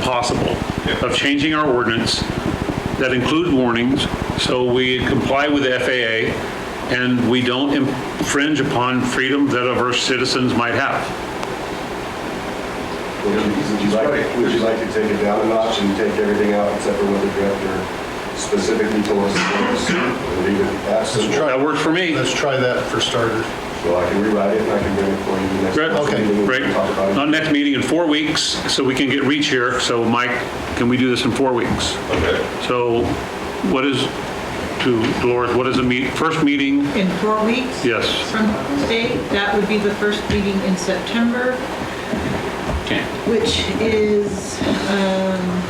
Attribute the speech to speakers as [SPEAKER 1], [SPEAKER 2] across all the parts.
[SPEAKER 1] possible of changing our ordinance that include warnings, so we comply with the FAA and we don't infringe upon freedom that of our citizens might have.
[SPEAKER 2] Would you- would you like, would you like to take it down a notch and take everything out except for what the director specifically told us to do? and Leave it absent?
[SPEAKER 3] Let's try-
[SPEAKER 1] That works for me.
[SPEAKER 3] Let's try that for starters.
[SPEAKER 2] Well, I can rewrite it and I can bring it for you next.
[SPEAKER 1] Great.
[SPEAKER 3] Okay,
[SPEAKER 2] meeting and
[SPEAKER 1] Great.
[SPEAKER 2] Talk about it.
[SPEAKER 1] Our next meeting in four weeks, so we can get reach here. So Mike, can we do this in four weeks?
[SPEAKER 4] Okay.
[SPEAKER 1] So what is, to Dolores, what is the meet, first meeting?
[SPEAKER 5] In four weeks?
[SPEAKER 1] Yes.
[SPEAKER 5] From today, that would be the first meeting in September, which is um,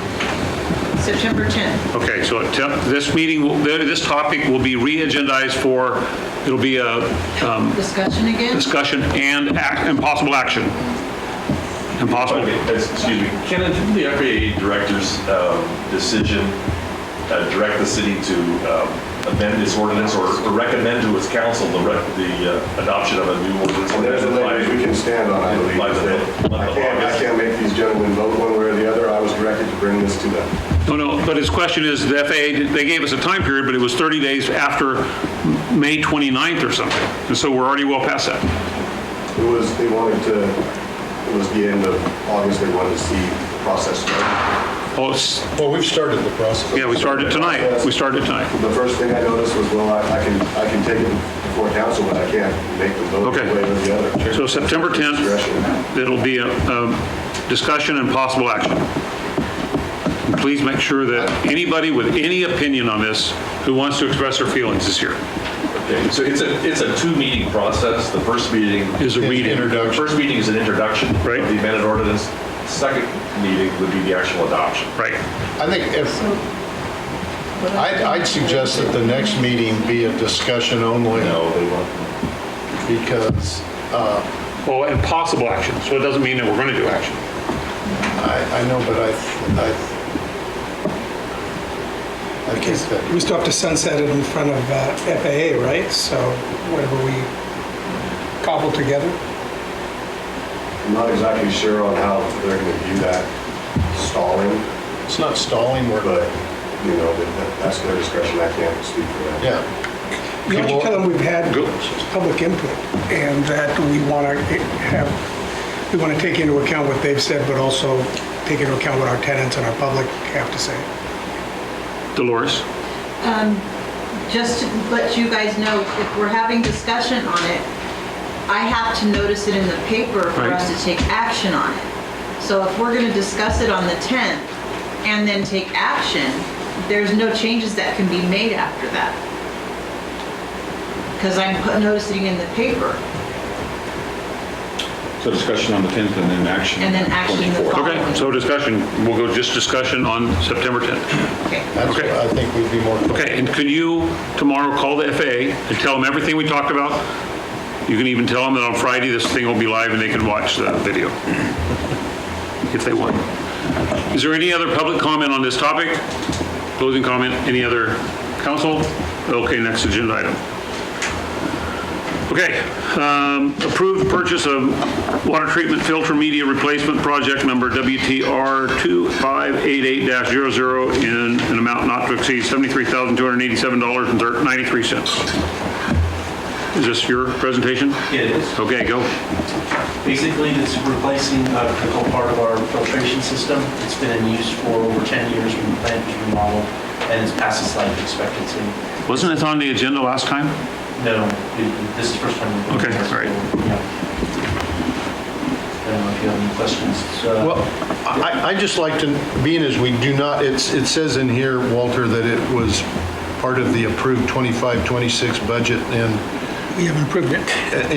[SPEAKER 5] September 10th.
[SPEAKER 1] Okay, so attempt- this meeting, will- this topic will be re-agendized for, it'll be a um,
[SPEAKER 5] Discussion again?
[SPEAKER 1] discussion and act, and possible action. Impossible.
[SPEAKER 4] Okay, that's- excuse me, Ken, didn't the FAA director's um, decision uh, direct the city to um, amend this ordinance or or recommend to its council the rec- the uh, adoption of a new ordinance?
[SPEAKER 2] And there's a language we can stand on, I believe.
[SPEAKER 4] Like the-
[SPEAKER 2] I can't, I can't make these gentlemen vote one way or the other. I was directed to bring this to them.
[SPEAKER 1] No, no, but his question is, the FAA, they gave us a time period, but it was 30 days after May 29th or something. And so we're already well past that.
[SPEAKER 2] It was, they wanted to, it was the end of August, they wanted to see the process start.
[SPEAKER 1] Oh, it's-
[SPEAKER 3] Well, we've started the process.
[SPEAKER 1] yeah, we started tonight. We started tonight.
[SPEAKER 2] The first thing I noticed was, well, I I can, I can take it before council, but I can't make the vote
[SPEAKER 1] Okay.
[SPEAKER 2] one way or the other.
[SPEAKER 1] So September 10th, it'll be a um, discussion and possible action. And Please make sure that anybody with any opinion on this who wants to express their feelings is here.
[SPEAKER 4] Okay, So it's a, it's a two-meeting process. The first meeting.
[SPEAKER 1] Is a reading.
[SPEAKER 4] The
[SPEAKER 3] Introduction.
[SPEAKER 4] First meeting is an introduction.
[SPEAKER 1] Right.
[SPEAKER 4] Of the amended ordinance. Second meeting would be the actual adoption.
[SPEAKER 1] Right.
[SPEAKER 3] I think if, I'd, I'd suggest that the next meeting be a discussion only
[SPEAKER 4] No, they won't.
[SPEAKER 3] because
[SPEAKER 1] Well, Oh, and possible action, so it doesn't mean that we're going to do action.
[SPEAKER 3] I, I know, but I, I, I think
[SPEAKER 6] We
[SPEAKER 3] that,
[SPEAKER 6] still have to sunset it in front of uh, FAA, right? So whatever we cobble together.
[SPEAKER 2] I'm not exactly sure on how they're gonna view that stalling,
[SPEAKER 3] it's not stalling, we're,
[SPEAKER 2] but, you know, that- that- that's their discretion, I can't speak for that.
[SPEAKER 3] yeah.
[SPEAKER 6] You have to
[SPEAKER 3] People-
[SPEAKER 6] tell them we've had
[SPEAKER 1] Go.
[SPEAKER 6] public input and that we want to have, we want to take into account what they've said, but also take into account what our tenants and our public have to say.
[SPEAKER 1] Dolores?
[SPEAKER 5] Just to let you guys know, if we're having discussion on it, I have to notice it in the paper for
[SPEAKER 1] Right.
[SPEAKER 5] us to take action on it. So if we're going to discuss it on the 10th and then take action, there's no changes that can be made after that. Because I'm put- noticing in the paper.
[SPEAKER 7] So discussion on the 10th and then action.
[SPEAKER 5] And then action the
[SPEAKER 7] 24th.
[SPEAKER 5] following.
[SPEAKER 1] Okay, so discussion, we'll go just discussion on September 10th.
[SPEAKER 5] Okay.
[SPEAKER 3] That's what
[SPEAKER 1] Okay.
[SPEAKER 3] I think we'd be more.
[SPEAKER 1] Okay, and could you tomorrow call the FAA and tell them everything we talked about? You can even tell them that on Friday, this thing will be live and they can watch the video if they want. Is there any other public comment on this topic? Closing comment, any other council? Okay, next agenda item. Okay, um, approved purchase of water treatment filter media replacement project number WTR 2588-00 in an amount not to exceed $73,287.93. Is this your presentation?
[SPEAKER 8] It is.
[SPEAKER 1] Okay, go.
[SPEAKER 8] Basically, it's replacing a critical part of our filtration system. It's been in use for over 10 years when the plant was remodeled, and it's past its life expectancy.
[SPEAKER 1] Wasn't it on the agenda last time?
[SPEAKER 8] No, it- this is the first time. we've done
[SPEAKER 1] Okay,
[SPEAKER 8] this.
[SPEAKER 1] all right.
[SPEAKER 8] Yeah. I don't know if you have any questions. Uh,
[SPEAKER 3] Well, I, I just like to, being as we do not, it's, it says in here, Walter, that it was part of the approved 25, 26 budget, and,
[SPEAKER 6] We have improved it.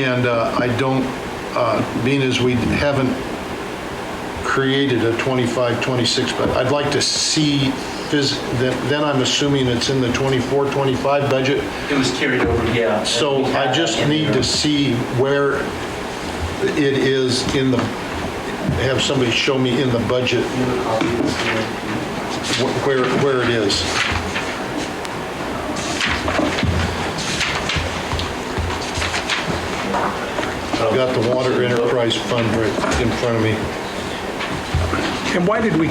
[SPEAKER 3] and uh, I don't, uh, being as we haven't created a 25, 26, but I'd like to see, phys- then then I'm assuming it's in the 24, 25 budget,
[SPEAKER 8] It was carried over, yeah.
[SPEAKER 3] so
[SPEAKER 8] And we had
[SPEAKER 3] I just
[SPEAKER 8] that in
[SPEAKER 3] need
[SPEAKER 8] there.
[SPEAKER 3] to see where it is in the, have somebody show me in the budget
[SPEAKER 8] You have a copy of this here?
[SPEAKER 3] wh- where, where it is. I've got the Water Enterprise Fund right in front of me.
[SPEAKER 6] And why did we